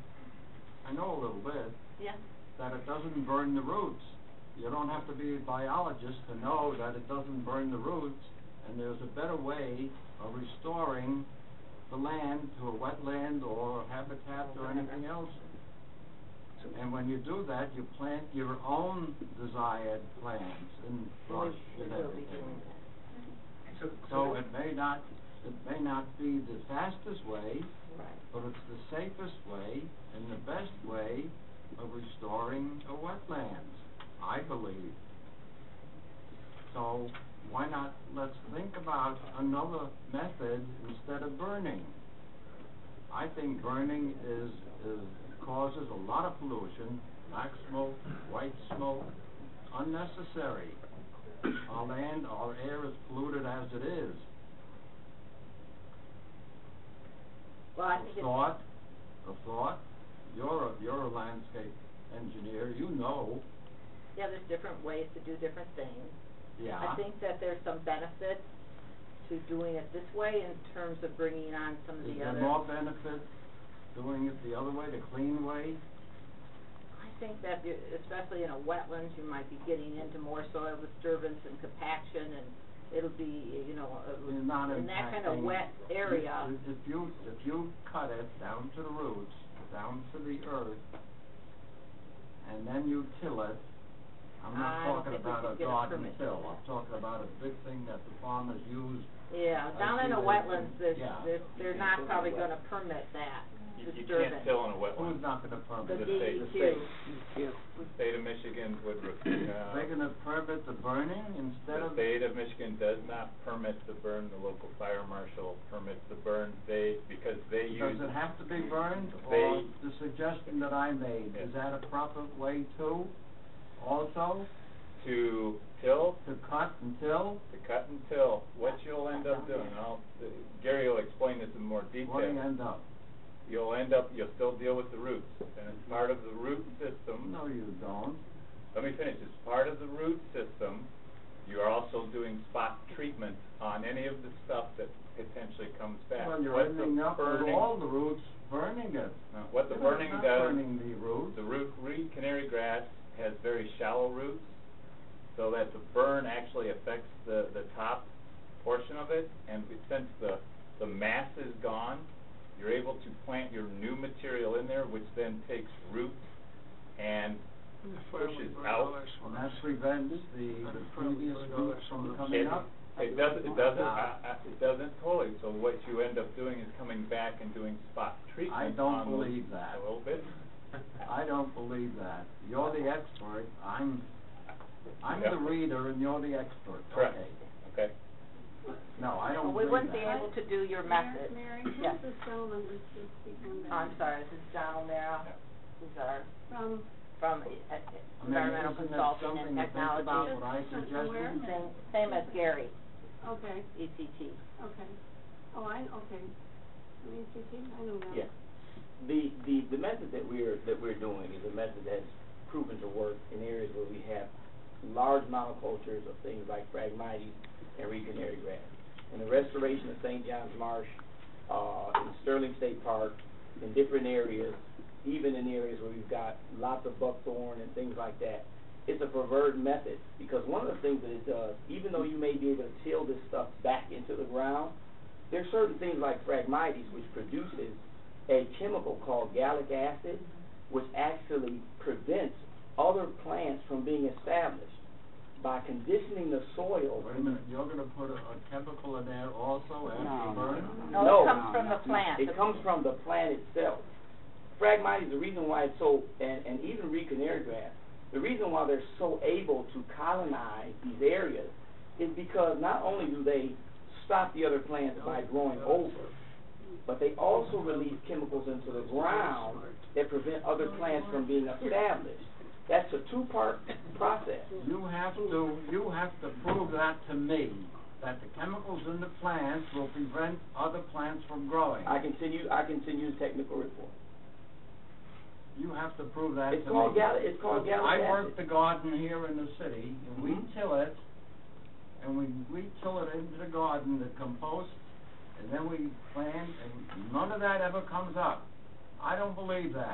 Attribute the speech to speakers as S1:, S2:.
S1: I know a little bit,
S2: Yeah,
S1: that it doesn't burn the roots. You don't have to be a biologist to know that it doesn't burn the roots, and there's a better way of restoring the land to a wetland or habitat or anything else. And when you do that, you plant your own desired plants and
S2: we
S1: brush
S2: we
S1: and
S2: will be
S1: everything.
S2: doing that.
S3: So,
S1: So it may not, it may not be the fastest way,
S2: Right.
S1: but it's the safest way and the best way of restoring a wetlands, I believe. So why not, let's think about another method instead of burning. I think burning is, is, causes a lot of pollution, black smoke, white smoke, unnecessary. Our land, our air is polluted as it is.
S2: Well, I think
S1: A
S2: it's,
S1: thought, a thought, you're a, you're a landscape engineer, you know,
S2: yeah, there's different ways to do different things. I
S1: yeah.
S2: think that there's some benefit to doing it this way in terms of bringing on some of
S1: Is
S2: the
S1: there
S2: other.
S1: more benefit doing it the other way, the clean way?
S2: I think that you- especially in a wetlands, you might be getting into more soil disturbance and compaction and it'll be, you know, a-
S1: You're not
S2: in that kind of
S1: impacting-
S2: wet area.
S1: If- If you, if you cut it down to the roots, down to the earth, and then you kill it, I'm
S2: I
S1: not
S2: don't
S1: talking
S2: think we
S1: about
S2: should
S1: a
S2: get a
S1: garden
S2: permit for
S1: till,
S2: that.
S1: I'm talking about a big thing that the farmers use.
S2: Yeah,
S1: I
S2: down
S1: see
S2: in the
S1: that.
S2: wetlands, there's,
S1: Yeah.
S2: there's, they're not probably gonna permit that
S4: You you can't
S2: disturbance.
S4: till in a wetland.
S1: Who's not gonna
S2: The E
S1: permit it?
S4: state.
S2: DEQ,
S4: The state of Michigan would, uh,
S1: They're gonna permit the burning instead
S4: the
S1: of
S4: state of Michigan does not permit the burn, the local fire marshal permits the burn, they, because they
S1: Does
S4: use,
S1: it have to be burned, or
S4: They-
S1: the suggestion that I made, is that a proper way too? Also,
S4: to till,
S1: to cut and till,
S4: to cut and till, what you'll end up doing, and I'll, Gary will explain this in more
S1: what do you
S4: detail.
S1: end up?
S4: You'll end up, you'll still deal with the roots, and it's part of the root system,
S1: No, you don't.
S4: let me finish, it's part of the root system, you are also doing spot treatment on any of the stuff that potentially comes back.
S1: Well, you're
S4: What the
S1: ending up with
S4: burning-
S1: all the roots burning it.
S4: no, What the
S1: You're
S4: burning
S1: not
S4: does
S1: burning the roots.
S4: The root, reed canary grass has very shallow roots, so that the burn actually affects the, the top portion of it, and we- since the, the mass is gone, you're able to plant your new material in there, which then takes root and pushes out.
S1: And that prevents the, the previous roots from coming
S4: It,
S1: up.
S4: it doesn't, it doesn't,
S1: Nah.
S4: I- I- it doesn't totally, so what you end up doing is coming back and doing spot
S1: I
S4: treatment
S1: don't
S4: on those-
S1: believe that.
S4: A little bit.
S1: I don't believe that. You're the expert, I'm, I'm
S4: Yeah.
S1: the reader and you're the expert,
S4: Correct.
S1: okay?
S4: Okay,
S1: No, I don't
S2: Oh, we
S1: believe
S2: wouldn't be
S1: that.
S2: able to do your
S5: Mary-
S2: method.
S5: Mary,
S2: Yes.
S5: how's the cell number to people that-
S2: I'm sorry, this is John O'Meara,
S4: Yeah.
S2: who's our,
S5: From,
S2: from uh, uh,
S1: I mean,
S2: environmental
S1: isn't that
S2: consultant and
S1: something to think about
S2: technology.
S1: what I
S5: Just
S1: suggested?
S5: aware.
S2: Same, same as Gary, E
S5: okay,
S2: ECT.
S5: okay. Oh, I, okay. I mean, you see, I know that.
S6: Yeah. The, the, the method that we're, that we're doing is a method that's proven to work in areas where we have large monocultures of things like Phragmites and Reed canary grass. And the restoration of St. John's Marsh, uh, in Sterling State Park, in different areas, even in areas where we've got lots of buckthorn and things like that, it's a preferred method, because one of the things that it does, even though you may be able to till this stuff back into the ground, there are certain things like Phragmites which produces a chemical called gallic acid, which actually prevents other plants from being established. By conditioning the soil,
S1: Wait a minute, you're gonna put a, a chemical in there also after burn?
S2: No,
S6: No.
S2: it comes from the plant.
S6: it comes from the plant itself. Phragmites is the reason why it's so, and, and even Reed canary grass, the reason why they're so able to colonize these areas is because not only do they stop the other plants by growing over, but they also release chemicals into the ground that prevent other plants from being established. That's a two-part process.
S1: You have to, you have to prove that to me, that the chemicals in the plants will prevent other plants from growing.
S6: I continue, I continue the technical report.
S1: You have to prove that to me.
S6: It's called gal, it's called
S1: Because
S6: gallic
S1: I
S6: acid.
S1: work the garden here in the city, and we
S6: Mhm.
S1: till it, and we, we till it into the garden, the compost, and then we plant, and none of that ever comes up. I don't believe that.